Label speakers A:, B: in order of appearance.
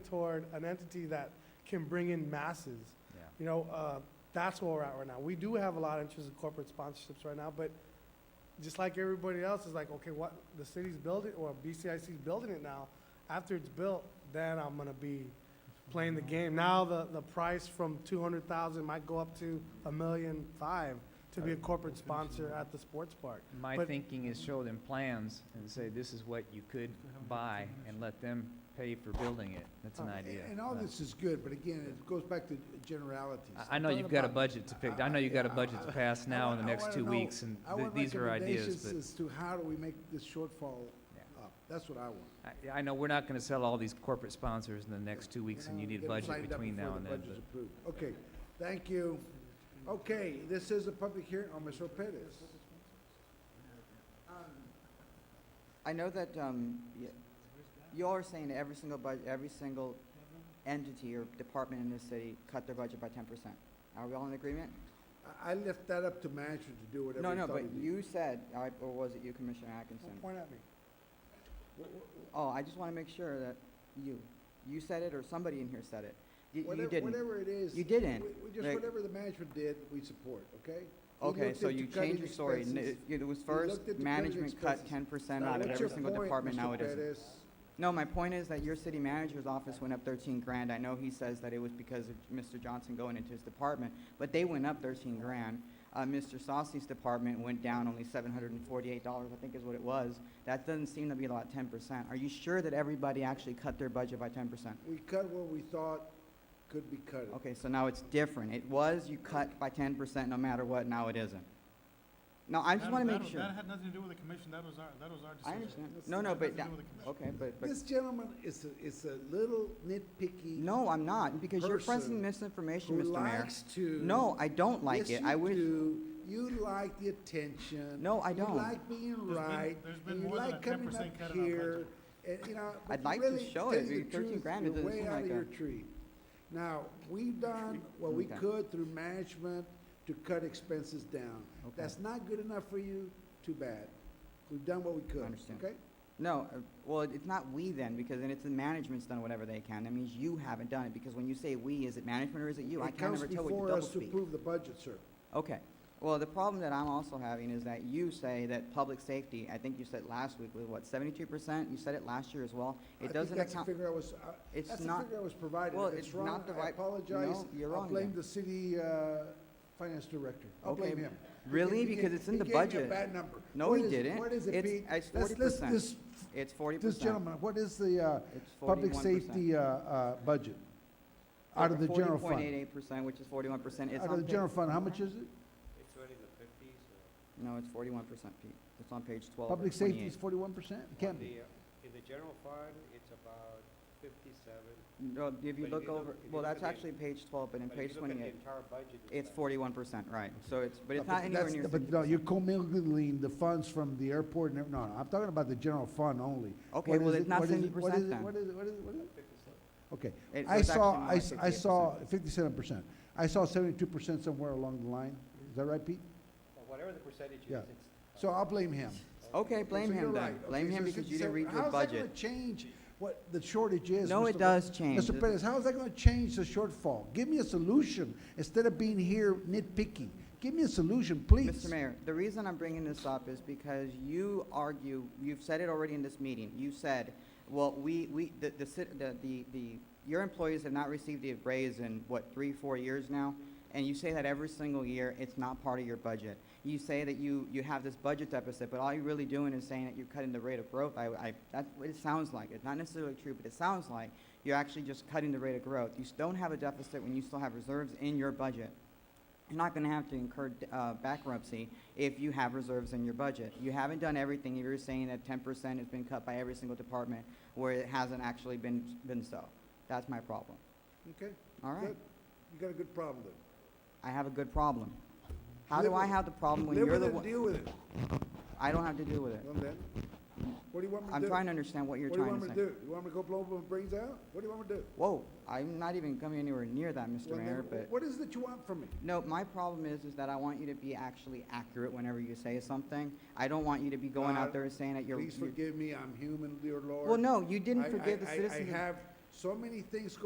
A: toward an entity that can bring in masses.
B: Yeah.
A: You know, uh, that's where we're at right now. We do have a lot of interest in corporate sponsorships right now, but just like everybody else, is like, okay, what, the city's building, or BCIC's building it now. After it's built, then I'm gonna be playing the game. Now, the, the price from two hundred thousand might go up to a million five to be a corporate sponsor at the sports park.
B: My
A: But-
B: thinking is show them plans and say, this is what you could buy and let them pay for building it. That's an
A: Uh,
B: idea.
C: And all
B: Uh,
C: this is good, but again, it goes back to generalities.
B: I, I know you've got a budget to pick, I know you've got a budget to pass now in the
C: I
B: next
C: wanna
B: two
C: know-
B: weeks and
C: I
B: th-
C: want
B: these are ideas,
C: recommendations
B: but
C: As to how do we make this shortfall
B: Yeah.
C: up? That's what I want.
B: I, I know we're not gonna sell all these corporate sponsors in the next two weeks and you
C: Now,
B: need a
C: get it
B: budget
C: signed up
B: between
C: before
B: now
C: the
B: and then,
C: budget's
B: but.
C: approved. Okay, thank you. Okay, this is a public hearing on Ms. Pettis.
D: I know that, um, y- y'all are saying that every single budget, every single entity or department in this city cut their budget by ten percent. Are we all in agreement?
C: I- I left that up to management to do whatever.
D: No,
C: he
D: no,
C: thought
D: but
C: he did.
D: you said, I- or was it you, Commissioner Atkinson?
A: Don't point at me.
D: Oh, I just wanna make sure that you, you said it or somebody in here said it. You- You
C: Whatever-
D: didn't.
C: Whatever it is.
D: You didn't.
C: we- we Just
D: Like-
C: whatever the management did, we support, okay? He
D: Okay,
C: looked
D: so
C: into
D: you
C: cutting
D: changed your story. N-
C: expenses.
D: It was first,
C: looked at the cutting
D: management cut
C: expenses.
D: ten percent
C: Now,
D: out of
C: what's
D: every
C: your
D: single
C: point,
D: department,
C: Mr.
D: now it isn't.
C: Pettis?
D: No, my point is that your city manager's office went up thirteen grand. I know he says that it was because of Mr. Johnson going into his department, but they went up thirteen grand. Uh, Mr. Saucy's department went down only seven hundred and forty-eight dollars, I think is what it was. That doesn't seem to be a lot, ten percent. Are you sure that everybody actually cut their budget by ten percent?
C: We cut what we thought could be cut.
D: Okay, so now it's different. It was, you cut by ten percent no matter what, now it isn't. No, I just
E: That-
D: wanna
E: that-
D: make sure.
E: That had nothing to do with the commission, that was our, that was our
D: I
E: decision.
D: understand.
E: That
D: No, no,
E: had
D: but,
E: nothing to
D: that-
E: do with the commission.
D: okay, but, but.
C: This gentleman is, a- is a little nitpicky.
D: No, I'm not, because you're pressing
C: person
D: misinformation,
C: Who
D: Mr. Mayor.
C: likes to.
D: No, I don't like
C: Yes,
D: it. I
C: you
D: wish,
C: do. You like the attention.
D: No, I don't.
C: You like being
E: been-
C: right.
E: there's been
C: and you
E: more than a
C: like coming
E: 10% cut
C: up
E: in our
C: here. And, you know, but
D: I'd
C: you
D: like to
C: really,
D: show
C: tell
D: it.
C: you the
D: 13
C: truth,
D: grand, it doesn't seem
C: You're way out
D: like
C: of your
D: a-
C: tree. Now, we've done what we
D: Okay.
C: could through management to cut expenses down.
D: Okay.
C: That's not good enough for you, too bad. We've done what we could,
D: Understand.
C: okay?
D: no, uh, well, it's not we then, because then it's the management's done whatever they can. That means you haven't done it, because when you say we, is it management or is it you? I
C: It
D: can't
C: comes
D: ever tell with the
C: before
D: double
C: us to
D: speak.
C: approve the budget, sir.
D: Okay. Well, the problem that I'm also having is that you say that public safety, I think you said last week, was what, seventy-two percent? You said it last year as well.
C: I
D: It
C: think
D: doesn't
C: That's the
D: account,
C: figure I was, uh,
D: it's
C: that's the
D: not,
C: figure I was provided.
D: well,
C: If
D: it's
C: it's
D: not
C: wrong,
D: the
C: I
D: right-
C: apologize.
D: no, you're
C: I'll
D: wrong
C: blame
D: then.
C: the city, uh, finance director. I'll
D: Okay,
C: blame him.
D: really?
C: He gave- he
D: Because
C: gave-
D: it's in the
C: He gave
D: budget.
C: me a bad number.
D: No,
C: What
D: he
C: is-
D: didn't.
C: What is it,
D: It's-
C: Pete?
D: it's
C: Let's- let's-
D: 40%.
C: This,
D: it's forty percent.
C: this gentleman, what is the, uh,
D: It's
C: public
D: 41%.
C: safety, uh, uh, budget? Out of the general
D: Forty point eight
C: fund?
D: eight percent, which is forty-one percent. It's
C: Out
D: on
C: of the
D: page-
C: general fund, how much is it?
F: uh,
D: No, it's forty-one percent, Pete. It's on page twelve or
C: Public safety is
D: twenty-eight.
C: forty-one percent? It can't be.
F: In the general fund, it's about fifty-seven.
D: No, if you
F: But if
D: look
F: you look-
D: over,
F: if you
D: well,
F: look
D: that's
F: at the-
D: actually page twelve, but in
F: But if
D: page
F: you look at the
D: twenty-eight,
F: entire budget,
D: it's
F: about-
D: forty-one percent, right? So it's, but it's
C: No,
D: not anywhere
C: that's-
D: near
C: But
D: sixty
C: no, you're
D: percent.
C: commingling the funds from the airport and, ev- no, no, I'm talking about the general fund only.
D: Okay,
C: What
D: well,
C: is
D: it's
C: it-
D: not
C: what is it-
D: seventy
C: what is
D: percent
C: it-
D: then.
C: What is it, what is it, what is it? Okay,
D: It
C: I
D: was
C: saw,
D: actually more
C: I,
D: like
C: s- I
D: 68%.
C: saw fifty-seven percent. I saw seventy-two percent somewhere along the line. Is that right, Pete?
F: well, whatever the percentage
C: Yeah.
F: is, it's.
C: So I'll blame him.
D: Okay, blame
C: So you're
D: him then.
C: right.
D: Blame
C: Okay,
D: him
C: so
D: because you didn't
C: 67
D: read your
C: How's that gonna
D: budget.
C: change what the shortage is?
D: No,
C: Mr.
D: it
C: Pe-
D: does change.
C: Mr. Pettis, how is that gonna change the shortfall? Give me a solution instead of being here nitpicking. Give me a solution, please.
D: Mr. Mayor, the reason I'm bringing this up is because you argue, you've said it already in this meeting, you said, well, we, we, the, the, cit- the, the, the- your employees have not received a raise in, what, three, four years now? And you say that every single year, it's not part of your budget. You say that you, you have this budget deficit, but all you're really doing is saying that you're cutting the rate of growth. I, I, that's what it sounds like. It's not necessarily true, but it sounds like you're actually just cutting the rate of growth. You s- don't have a deficit when you still have reserves in your budget. You're not going to have to incur uh, bankruptcy if you have reserves in your budget. You haven't done everything. You're saying that 10% has been cut by every single department where it hasn't actually been, been so. That's my problem.
C: Okay,
D: All right?
C: good. You got a good problem then.
D: I have a good problem. How do
C: Live
D: I
C: with-
D: have the problem when
C: Live
D: you're
C: with
D: the
C: it,
D: one?
C: deal with it.
D: I don't have to deal with it.
C: Well, then, what do you want me to do?
D: I'm trying to understand what you're
C: What do you
D: trying
C: want me
D: to
C: to
D: say.
C: do? You want me to go blow my brains out? What do you want me to do?
D: Whoa, I'm not even coming anywhere near that, Mr.
C: Well, then,
D: Mayor,
C: wh-
D: but.
C: What is it that you want from me?
D: No, my problem is, is that I want you to be actually accurate whenever you say something. I don't want you to be going
C: God,
D: out there and saying that you're.
C: Uh, Please
D: you're-
C: forgive me, I'm human, dear Lord.
D: Well, no, you
C: I-
D: didn't
C: I-
D: forgive the
C: I-
D: citizens.
C: I have so many things